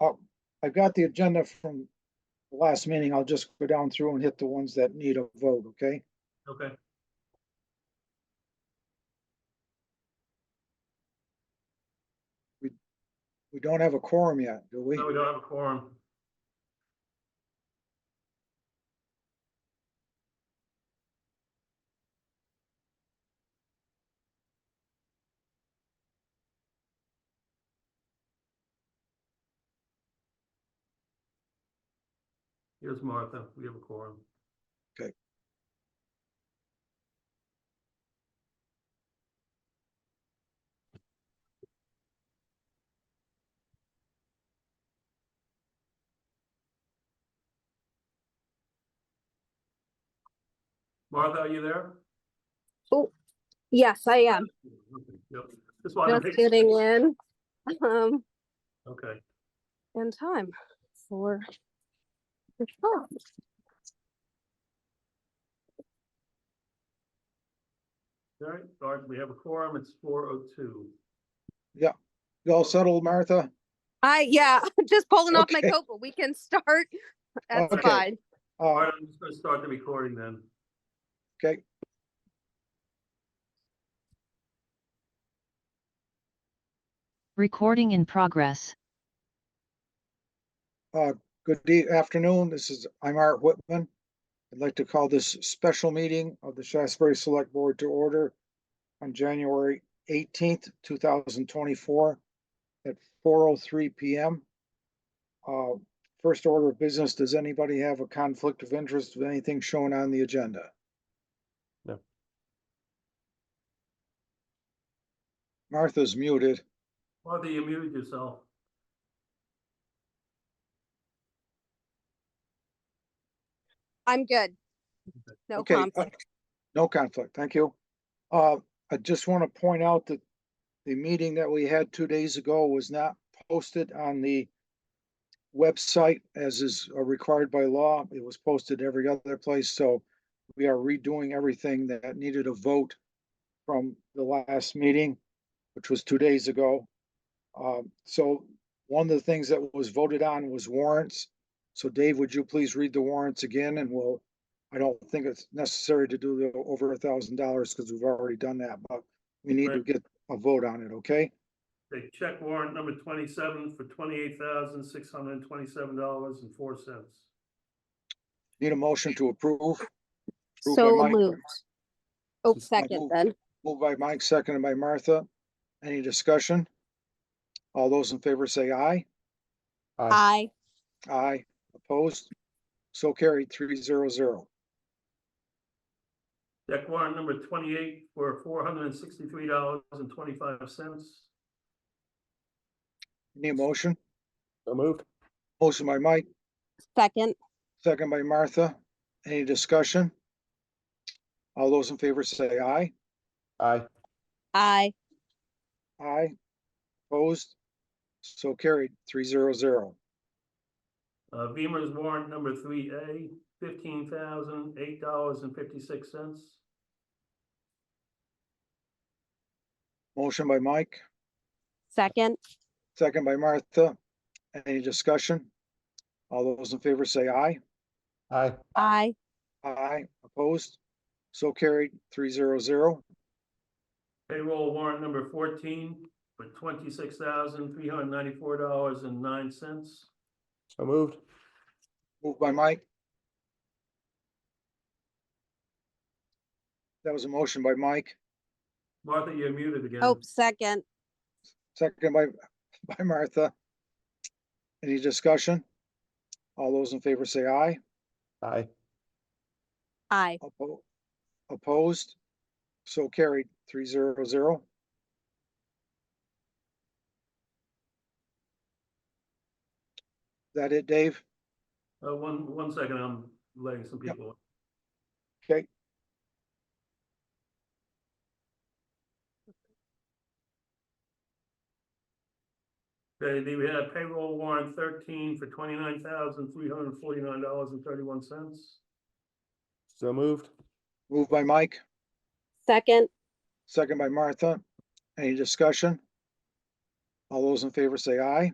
I'll- I've got the agenda from the last meeting. I'll just go down through and hit the ones that need a vote, okay? Okay. We don't have a quorum yet, do we? No, we don't have a quorum. Here's Martha. We have a quorum. Martha, are you there? Yes, I am. Yep. Just wanted Just to make. getting in. Um, Okay, in time for. the call. all right, all right, we have a quorum. It's four oh two. You all settled, Martha? I, yeah, I'm just pulling off my Okay. coat, but we can start. That's Okay. fine. All Uh, right, I'm just gonna start the recording then. okay, Recording in progress. good day, afternoon. This is, I'm Art Whitman. I'd like to call this special meeting of the Shasberry Select Board to order on January eighteenth, two thousand twenty-four at four oh three PM. Uh, first order of business, does anybody have a conflict of interest with anything shown on the agenda? No. Martha's muted. Martha, you muted yourself. I'm good. No Okay, uh, conflict. No conflict, thank you. Uh, I just want to point out that the meeting that we had two days ago was not posted on the website as is uh, required by law. It was posted every other place, so we are redoing everything that needed a vote from the last meeting, which was two days ago. Um, so one of the things that was voted on was warrants. So Dave, would you please read the warrants again and we'll I don't think it's necessary to do the over a thousand dollars because we've already done that, but we need to Right. get a vote on it, okay? Okay, check warrant number twenty-seven for twenty-eight thousand, six hundred and twenty-seven dollars and four cents. Need a motion to approve, approved by So Mike. moved. Oh, my second move. then. moved by Mike, seconded by Martha. Any discussion? All those in favor say aye. I, Aye, opposed? So carried, three zero zero. Check warrant number twenty-eight for four hundred and sixty-three dollars and twenty-five cents. Need a motion? So moved. Motion by Mike, second, second by Martha. Any discussion? All those in favor say aye. Aye. I, Aye. Opposed? So carried, three zero zero. Uh, Beamer's warrant number three A, fifteen thousand, eight dollars and fifty-six cents. Motion by Mike, second, second by Martha. Any discussion? All those in favor say aye. Aye. I, Aye. Opposed? So carried, three zero zero. Payroll warrant number fourteen for twenty-six thousand, three hundred and ninety-four dollars and nine cents. So moved. Moved by Mike. That was a motion by Mike, Martha, you're muted again. oh, second, second by, by Martha. Any discussion? All those in favor say aye. Aye. I, Oppo- Opposed? So carried, three zero zero. That it, Dave? Uh, one, one second, I'm letting some Yep. people. in. Okay, Okay, then we have payroll warrant thirteen for twenty-nine thousand, three hundred and forty-nine dollars and thirty-one cents. So moved. moved by Mike, second, second by Martha. Any discussion? All those in favor say aye.